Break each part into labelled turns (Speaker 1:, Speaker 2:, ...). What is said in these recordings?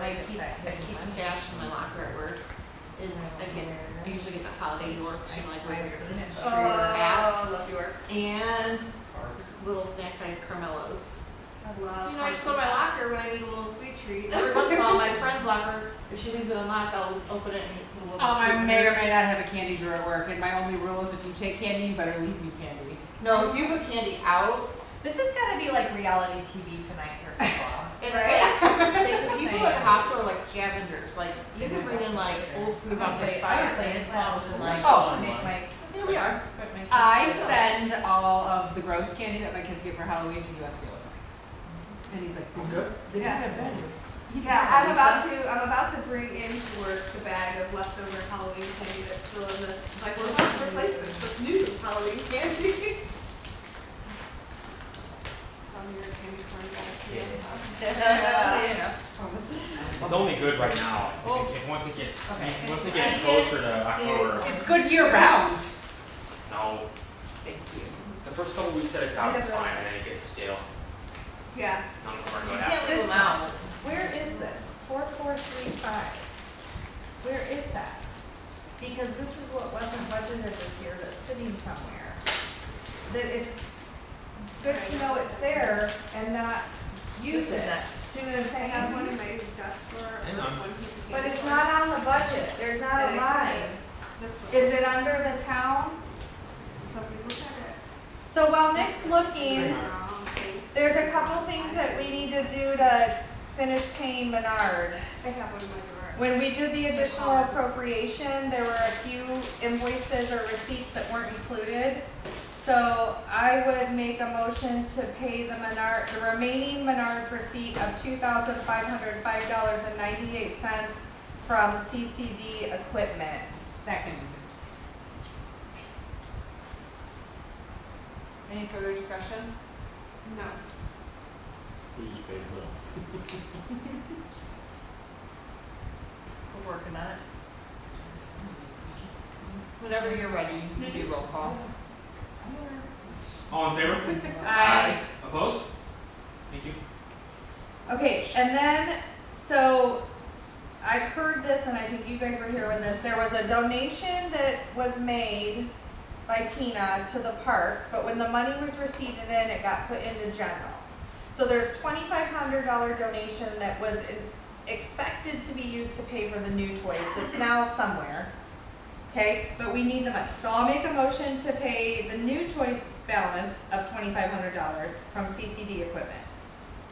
Speaker 1: I keep, I keep stashed in my locker at work is I get, I usually get the holiday Yorks and like what's this? in it?
Speaker 2: Oh, love Yorks.
Speaker 1: And little snack size Carmelos.
Speaker 2: I love.
Speaker 1: You know, I just go to my locker when I need a little sweet treat. Every once in a while, my friend's locker, if she leaves it unlocked, I'll open it and. we'll
Speaker 3: Um, I
Speaker 1: treat
Speaker 3: may or may
Speaker 1: her.
Speaker 3: not have a candy drawer at work, and my only rule is if you take candy, you better leave me candy.
Speaker 1: No, if you put candy out,
Speaker 4: This has got to be like reality TV tonight for people.
Speaker 1: it's
Speaker 2: Right?
Speaker 1: like, because people at the
Speaker 4: Same.
Speaker 1: hospital are like scavengers, like you could bring in like old food
Speaker 4: I'm
Speaker 1: about to
Speaker 4: gonna play- I'm
Speaker 1: expire
Speaker 4: gonna
Speaker 1: and
Speaker 4: play
Speaker 1: it's
Speaker 4: it
Speaker 1: all
Speaker 4: fast, just
Speaker 1: just like.
Speaker 3: Oh,
Speaker 4: Make my.
Speaker 1: Here we are.
Speaker 4: put my-
Speaker 3: I send all of the gross candy that my kids get for Halloween to U.S. Seal. And he's like,
Speaker 5: I'm good.
Speaker 3: They
Speaker 2: Yeah.
Speaker 3: have beds.
Speaker 2: Yeah, I'm about to, I'm about to bring into work the bag of leftover Halloween candy that's still in the, like, we're about to replace this with new Halloween candy. On your candy corn guys.
Speaker 3: Oh, what's this?
Speaker 5: It's only good right now.
Speaker 1: Oh.
Speaker 5: If, if once it gets
Speaker 3: Okay.
Speaker 5: if- once it
Speaker 1: It's-
Speaker 5: gets
Speaker 1: it
Speaker 5: closer
Speaker 1: is-
Speaker 5: to October,
Speaker 3: It's good year round.
Speaker 5: no. Thank you. The first couple weeks that it's out, it's fine, and then it gets stale.
Speaker 2: Yeah,
Speaker 5: I don't know where to go
Speaker 4: Yeah,
Speaker 5: after.
Speaker 4: this-
Speaker 1: Pull 'em out.
Speaker 4: Where is this? Four, four, three, five. Where is that? Because this is what wasn't budgeted this year, that's sitting somewhere. That it's good to know it's there and not use
Speaker 1: This is
Speaker 4: it.
Speaker 1: not-
Speaker 4: Do you know what I'm
Speaker 2: I
Speaker 4: saying?
Speaker 2: have
Speaker 1: Mm-hmm.
Speaker 2: one in my desk drawer,
Speaker 5: Hang on.
Speaker 2: one piece of candy.
Speaker 4: But it's
Speaker 2: corn.
Speaker 4: not on the budget, there's not a
Speaker 2: That
Speaker 4: line.
Speaker 2: exciting. This one.
Speaker 4: Is it under the town?
Speaker 2: So if you look
Speaker 4: So while Nick's
Speaker 2: at it.
Speaker 4: looking,
Speaker 2: brown face.
Speaker 4: there's a couple things that we need to do to finish paying
Speaker 2: I
Speaker 4: Menards.
Speaker 2: have one in my drawer.
Speaker 4: When we did the additional appropriation, there were a few invoices or receipts that weren't included. So I would make a motion to pay the Menard, the remaining Menards receipt of two thousand five hundred five dollars and ninety-eight cents from CCD Equipment.
Speaker 3: Second.
Speaker 1: Any further discussion?
Speaker 2: No.
Speaker 1: We're working on it. Whenever you're ready, you can do roll call.
Speaker 5: All in favor?
Speaker 1: Aye.
Speaker 5: Opposed? Thank you.
Speaker 4: Okay, and then, so I've heard this and I think you guys were here when this, there was a donation that was made by Tina to the park, but when the money was received in, it got put into general. So there's twenty-five hundred dollar donation that was in- expected to be used to pay for the new toys, that's now somewhere. Okay, but we need the money, so I'll make a motion to pay the new toys balance of twenty-five hundred dollars from CCD equipment.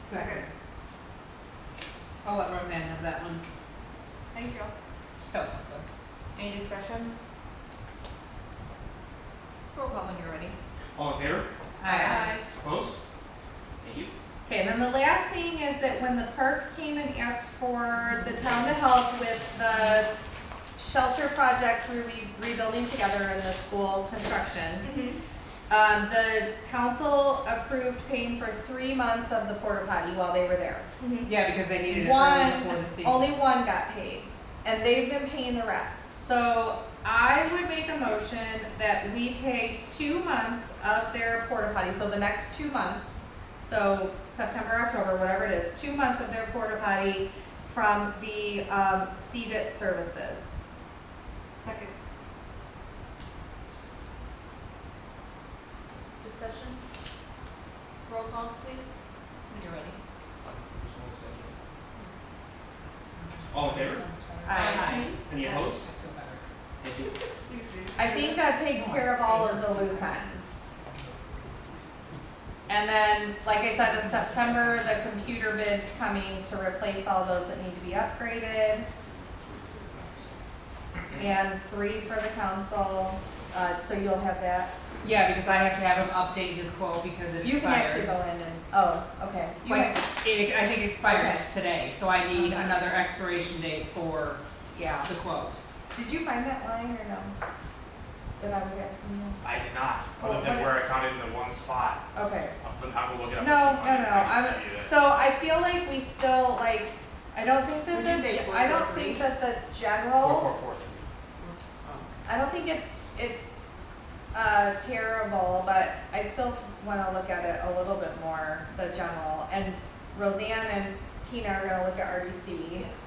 Speaker 3: Second. I'll let Roseanne have that one.
Speaker 2: Thank you.
Speaker 3: So.
Speaker 1: Any discussion? Roll call when you're ready.
Speaker 5: All in favor?
Speaker 4: Aye.
Speaker 5: Opposed? Thank you.
Speaker 4: Okay, and then the last thing is that when the park came and asked for the town to help with the shelter project, we re- rebuilding together in the school constructions.
Speaker 2: Mhm.
Speaker 4: Um, the council approved paying for three months of the porta potty while they were there.
Speaker 3: Yeah, because they needed it
Speaker 4: One,
Speaker 3: early before the season.
Speaker 4: Only one got paid, and they've been paying the rest. So I would make a motion that we pay two months of their porta potty, so the next two months, so September, October, whatever it is, two months of their porta potty from the um, CVIP services.
Speaker 2: Second.
Speaker 1: Discussion? Roll call, please, when you're ready.
Speaker 5: Just one second. All in favor?
Speaker 4: I,
Speaker 2: Aye.
Speaker 5: Any opposed?
Speaker 3: I feel better.
Speaker 5: Thank you.
Speaker 4: I think that takes care of all of the loose ends. And then, like I said, in September, the computer bid's coming to replace all those that need to be upgraded. And three for the council, uh, so you'll have that.
Speaker 3: Yeah, because I have to have them update this quote because it expired.
Speaker 4: You can actually go in and, oh, okay. You
Speaker 3: Like,
Speaker 4: can-
Speaker 3: it, I think expires today, so I need another expiration date for
Speaker 4: Yeah.
Speaker 3: the quote.
Speaker 4: Did you find that line or no? That I was asking you?
Speaker 5: I did not, other than where I found it in the one spot.
Speaker 4: Okay.
Speaker 5: I'll, put- I'll go look it up.
Speaker 4: No,
Speaker 5: if
Speaker 4: no,
Speaker 5: you
Speaker 4: no,
Speaker 5: want it. I
Speaker 4: I'm,
Speaker 5: can do that.
Speaker 4: so I feel like we still, like, I don't think that
Speaker 1: Would you say
Speaker 4: the,
Speaker 1: four,
Speaker 4: I
Speaker 1: four,
Speaker 4: don't
Speaker 1: three?
Speaker 4: think that the
Speaker 5: Four,
Speaker 4: general,
Speaker 5: four, four, three.
Speaker 4: I don't think it's, it's, uh, terrible, but I still wanna look at it a little bit more, the general. And Roseanne and Tina are gonna look at RDC.